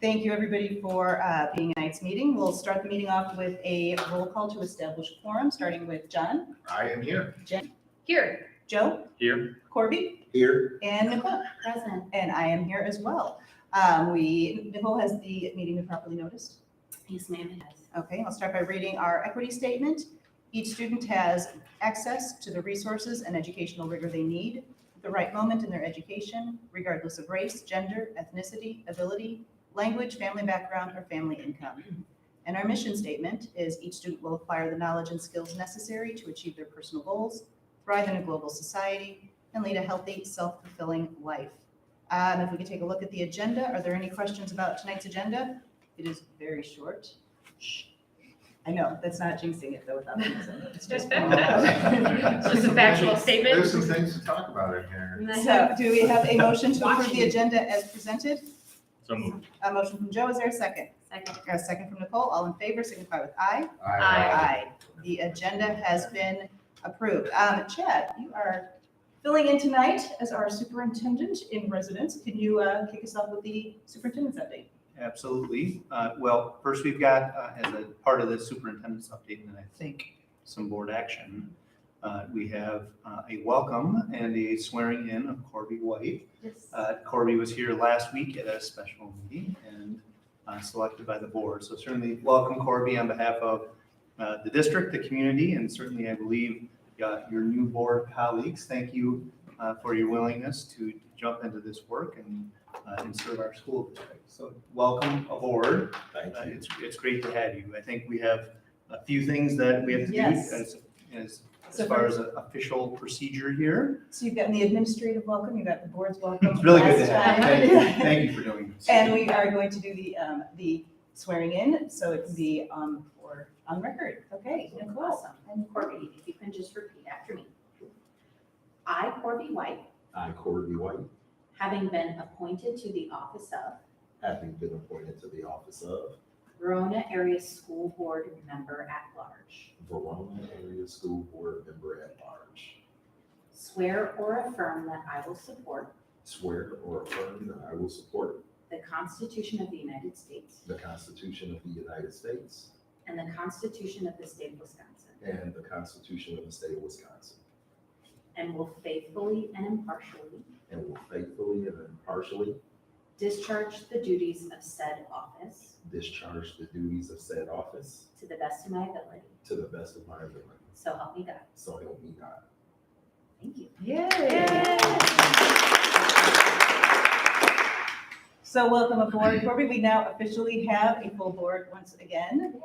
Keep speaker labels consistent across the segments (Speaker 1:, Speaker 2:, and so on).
Speaker 1: Thank you, everybody, for uh, being at tonight's meeting. We'll start the meeting off with a roll call to establish quorum, starting with John,
Speaker 2: I am here.
Speaker 1: Jen,
Speaker 3: Here,
Speaker 1: Joe,
Speaker 2: Here.
Speaker 1: Corby,
Speaker 2: Here.
Speaker 1: and Nicole,
Speaker 3: present.
Speaker 1: and I am here as well. Um, We, Nicole has the meeting been properly noticed.
Speaker 3: Yes, ma'am, it is.
Speaker 1: Okay, I'll start by reading our equity statement. Each student has access to the resources and educational rigor they need at the right moment in their education, regardless of race, gender, ethnicity, ability, language, family background, or family income. And our mission statement is each student will acquire the knowledge and skills necessary to achieve their personal goals, thrive in a global society, and lead a healthy, self-fulfilling life. Um, If we could take a look at the agenda, are there any questions about tonight's agenda? It is very short. I know, that's not jinxing it though without the reason. It's just.
Speaker 3: Just a factual statement.
Speaker 2: There's some things to talk about in here.
Speaker 1: So do we have a motion to approve the agenda as presented?
Speaker 4: So moved.
Speaker 1: A motion from Joe, is there a second?
Speaker 3: Second.
Speaker 1: A second from Nicole, all in favor, signify with aye.
Speaker 2: uh,
Speaker 3: Aye.
Speaker 1: The agenda has been approved. Um, Chad, you are filling in tonight as our superintendent in residence. Can you uh, kick us off with the superintendent's update?
Speaker 5: Absolutely. Uh, Well, first, we've got, uh, as a part of the superintendent's update, and I think some board action, uh, we have uh, a welcome and a swearing in of Corby White.
Speaker 3: Yes.
Speaker 5: Uh, Corby was here last week at a special meeting and uh, selected by the board. So certainly, welcome Corby on behalf of uh, the district, the community, and certainly, I believe, uh, your new board colleagues. Thank you uh, for your willingness to jump into this work and uh, and serve our school district. So welcome aboard.
Speaker 2: Thank
Speaker 5: Uh, It's, it's great to have you. I think we have a few things that we have to do
Speaker 1: Yes.
Speaker 5: as, as,
Speaker 1: So
Speaker 5: as far as a- official procedure here.
Speaker 1: So you've gotten the administrative welcome, you've got the board's welcome.
Speaker 5: It's really good to
Speaker 1: Last
Speaker 5: have you.
Speaker 1: time.
Speaker 5: Thank you, thank you for doing this.
Speaker 1: And we are going to do the, um, the swearing in, so it can be, um, for, on record, okay? Nicole?
Speaker 3: Awesome. And Corby, if you can just repeat after me. I, Corby White,
Speaker 6: I, Corby White,
Speaker 3: having been appointed to the office of
Speaker 6: having been appointed to the office of
Speaker 3: Verona Area School Board Member at Large,
Speaker 6: Verona Area School Board Member at Large,
Speaker 3: swear or affirm that I will support
Speaker 6: swear or affirm that I will support
Speaker 3: the Constitution of the United States
Speaker 6: the Constitution of the United States
Speaker 3: and the Constitution of the State of Wisconsin,
Speaker 6: and the Constitution of the State of Wisconsin,
Speaker 3: and will faithfully and impartially
Speaker 6: and will faithfully and impartially
Speaker 3: discharge the duties of said office
Speaker 6: discharge the duties of said office
Speaker 3: to the best of my ability.
Speaker 6: to the best of my ability.
Speaker 3: So help me God.
Speaker 6: So help me God.
Speaker 3: Thank you.
Speaker 1: Yay! So welcome aboard, Corby. We now officially have a full board once again.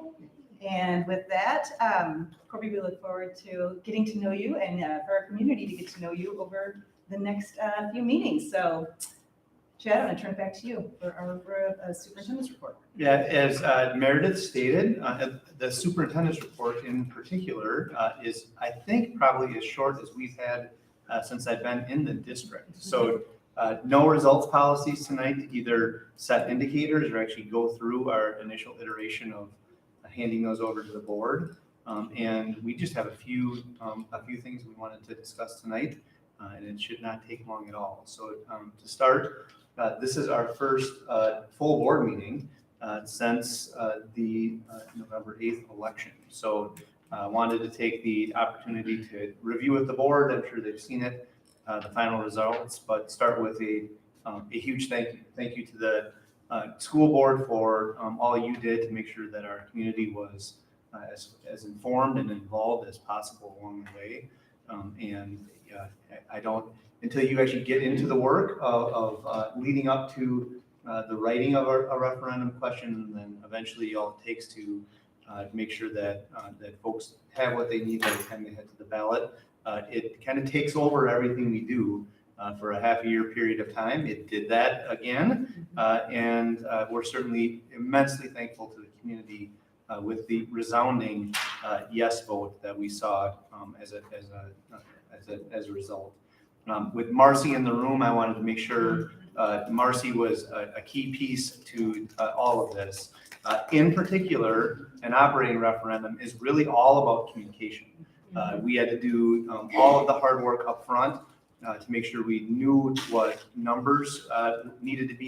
Speaker 1: And with that, um, Corby, we look forward to getting to know you and uh, for our community to get to know you over the next uh, few meetings. So Chad, I'm going to turn it back to you for our uh, superintendent's report.
Speaker 5: Yeah, as uh, Meredith stated, uh, the superintendent's report in particular uh, is, I think, probably as short as we've had uh, since I've been in the district. So uh, no results policies tonight to either set indicators or actually go through our initial iteration of handing those over to the board. Um, And we just have a few, um, a few things we wanted to discuss tonight, uh, and it should not take long at all. So um, to start, uh, this is our first uh, full board meeting uh, since uh, the uh, November 8th election. So I wanted to take the opportunity to review with the board, I'm sure they've seen it, uh, the final results, but start with a, um, a huge thank you. Thank you to the uh, school board for um, all you did to make sure that our community was uh, as, as informed and involved as possible along the way. Um, And uh, I I don't, until you actually get into the work of, of uh, leading up to uh, the writing of a a referendum question, and then eventually all it takes to uh, make sure that, uh, that folks have what they need by the time they head to the ballot. Uh, It kind of takes over everything we do uh, for a half a year period of time. It did that again. Uh, And uh, we're certainly immensely thankful to the community uh, with the resounding uh, yes vote that we saw um, as a, as a, as a, as a result. Um, With Marcy in the room, I wanted to make sure uh, Marcy was a, a key piece to uh, all of this. Uh, in particular, an operating referendum is really all about communication. Uh, we had to do um, all of the hard work up front uh, to make sure we knew what numbers uh, needed to be